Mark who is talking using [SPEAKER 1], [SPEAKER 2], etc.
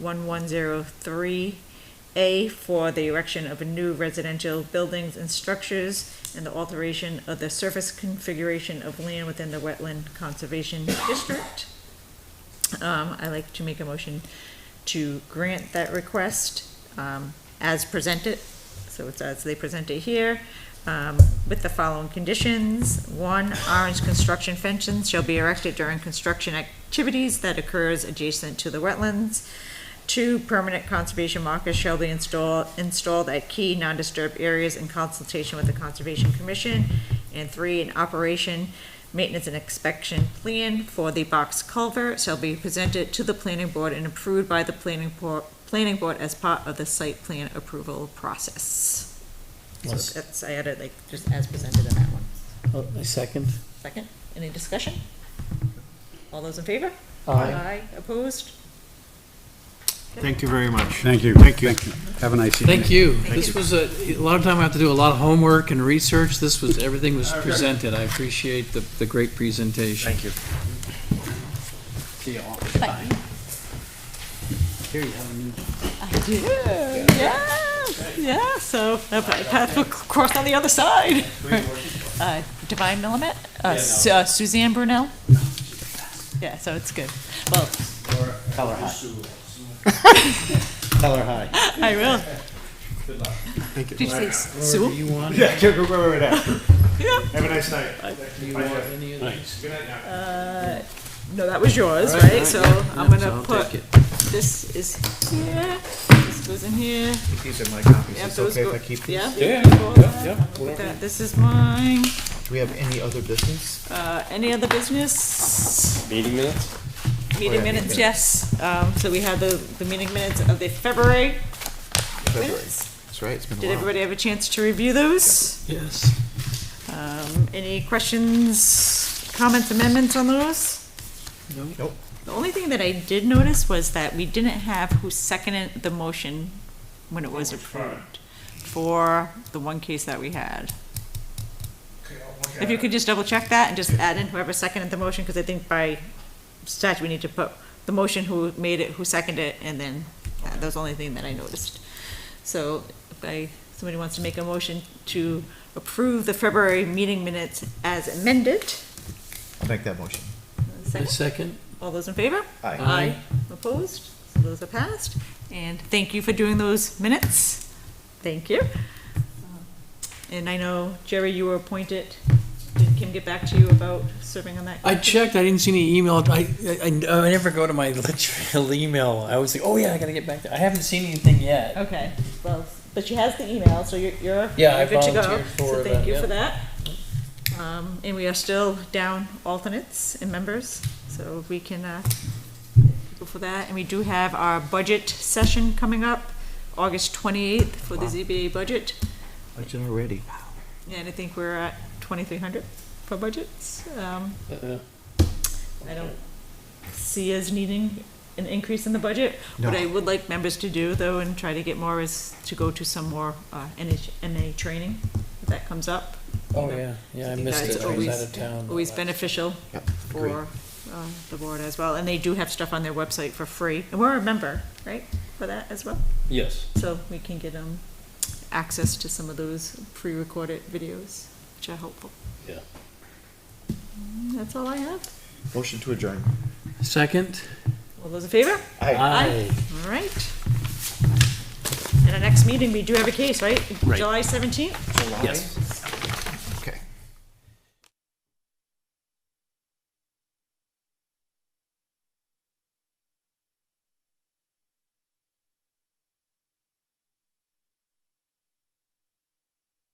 [SPEAKER 1] 1103A for the erection of new residential buildings and structures and the alteration of the surface configuration of land within the Wetland Conservation District. Um, I'd like to make a motion to grant that request, um, as presented. So it's as they present it here, um, with the following conditions. One, orange construction fences shall be erected during construction activities that occurs adjacent to the wetlands. Two, permanent conservation markers shall be installed, installed at key non-disturbed areas in consultation with the Conservation Commission. And three, an operation, maintenance and inspection plan for the box culvert shall be presented to the planning board and approved by the planning board, planning board as part of the site plan approval process. So
[SPEAKER 2] Yes.
[SPEAKER 1] that's, I added like, just as presented in that one.
[SPEAKER 2] Oh, A second?
[SPEAKER 1] Second, any discussion? All those in favor? opposed?
[SPEAKER 3] Thank you very much.
[SPEAKER 4] Thank you.
[SPEAKER 3] Thank you.
[SPEAKER 4] Have a nice evening.
[SPEAKER 5] Thank you. This was a, a lot of time I have to do a lot of homework and research. This was, everything was presented. I appreciate the, the great presentation.
[SPEAKER 3] you.
[SPEAKER 5] See you all.
[SPEAKER 1] Bye.
[SPEAKER 5] Here you have a new-
[SPEAKER 1] I do, yeah, yeah, so, uh, a path will cross on the other side. Uh, Divine Millimet, uh, Su- uh, Suzanne Brunel? Yeah, so it's good. Well,
[SPEAKER 2] Tell her hi. Tell her hi.
[SPEAKER 1] I will. Did you say Sue?
[SPEAKER 5] Do you want,
[SPEAKER 3] Yeah, go, go, go right after.
[SPEAKER 1] Yeah.
[SPEAKER 3] Have a nice night.
[SPEAKER 5] do you want any of these?
[SPEAKER 3] Good night now.
[SPEAKER 1] No, that was yours,
[SPEAKER 5] All right,
[SPEAKER 1] right?
[SPEAKER 5] all
[SPEAKER 1] So
[SPEAKER 5] yeah.
[SPEAKER 1] I'm gonna
[SPEAKER 5] I'll
[SPEAKER 1] put,
[SPEAKER 5] take it.
[SPEAKER 1] this is here, this goes in here.
[SPEAKER 3] These are my copies.
[SPEAKER 1] Yeah,
[SPEAKER 3] It's
[SPEAKER 1] those
[SPEAKER 3] okay if
[SPEAKER 1] go-
[SPEAKER 3] I keep these?
[SPEAKER 1] Yeah?
[SPEAKER 5] Yeah,
[SPEAKER 1] Cool.
[SPEAKER 5] yeah, yeah,
[SPEAKER 1] That- This is mine.
[SPEAKER 3] Do we have any other business?
[SPEAKER 1] Uh, Any other business?
[SPEAKER 6] Meeting minutes?
[SPEAKER 1] Meeting minutes, yes. Um, So we had the, the meeting minutes of the February minutes.
[SPEAKER 3] That's right, it's been a while.
[SPEAKER 1] Did everybody have a chance to review those?
[SPEAKER 5] Yes.
[SPEAKER 1] Um, Any questions, comments, amendments on those?
[SPEAKER 5] No.
[SPEAKER 3] Nope.
[SPEAKER 1] The only thing that I did notice was that we didn't have who seconded the motion when it was approved for the one case that we had. If you could just double check that and just add in whoever seconded the motion, because I think by statute we need to put the motion who made it, who seconded it, and then uh, that that was the only thing that I noticed. So if I, somebody wants to make a motion to approve the February meeting minutes as amended.
[SPEAKER 3] I'll make that motion.
[SPEAKER 5] A
[SPEAKER 1] Second,
[SPEAKER 5] second?
[SPEAKER 1] all those in favor?
[SPEAKER 3] Aye.
[SPEAKER 1] Aye. Opposed? So those are passed. And thank you for doing those minutes. Thank you. And I know, Jerry, you were appointed. Did Kim get back to you about serving on that?
[SPEAKER 5] I checked, I didn't see any email, I, I, I never go to my literal email, I was like, oh yeah, I gotta get back to, I haven't seen anything yet.
[SPEAKER 1] Okay, well, but she has the email, so you're, you're
[SPEAKER 5] Yeah, I
[SPEAKER 1] you're good to go.
[SPEAKER 5] volunteered for
[SPEAKER 1] So thank
[SPEAKER 5] that,
[SPEAKER 1] you for
[SPEAKER 5] yeah.
[SPEAKER 1] that. Um, and we are still down alternates and members, so if we can, uh, go for that. And we do have our budget session coming up, August twenty-eighth for the ZBA budget.
[SPEAKER 3] Budget already.
[SPEAKER 1] And I think we're at twenty-three hundred for budgets. Um,
[SPEAKER 5] Uh-uh.
[SPEAKER 1] I don't see us needing an increase in the budget. What
[SPEAKER 3] No.
[SPEAKER 1] I would like members to do, though, and try to get more, is to go to some more uh, NH NA training if that comes up.
[SPEAKER 5] Oh yeah, yeah, I
[SPEAKER 1] think
[SPEAKER 5] missed
[SPEAKER 1] that's
[SPEAKER 5] it, I was
[SPEAKER 1] always-
[SPEAKER 5] out of town.
[SPEAKER 1] Always beneficial
[SPEAKER 3] Yep, agree.
[SPEAKER 1] for uh, the board as well. And they do have stuff on their website for free. And we're a member, right, for that as well?
[SPEAKER 5] Yes.
[SPEAKER 1] So we can get um, access to some of those pre-recorded videos, which are helpful.
[SPEAKER 5] Yeah.
[SPEAKER 1] Mm, That's all I have.
[SPEAKER 3] Motion to adjourn.
[SPEAKER 5] Second?
[SPEAKER 1] All those in favor?
[SPEAKER 3] Aye.
[SPEAKER 1] Aye. All right. And our next meeting, we do have a case, right? July seventeenth?
[SPEAKER 3] July?
[SPEAKER 5] Yes.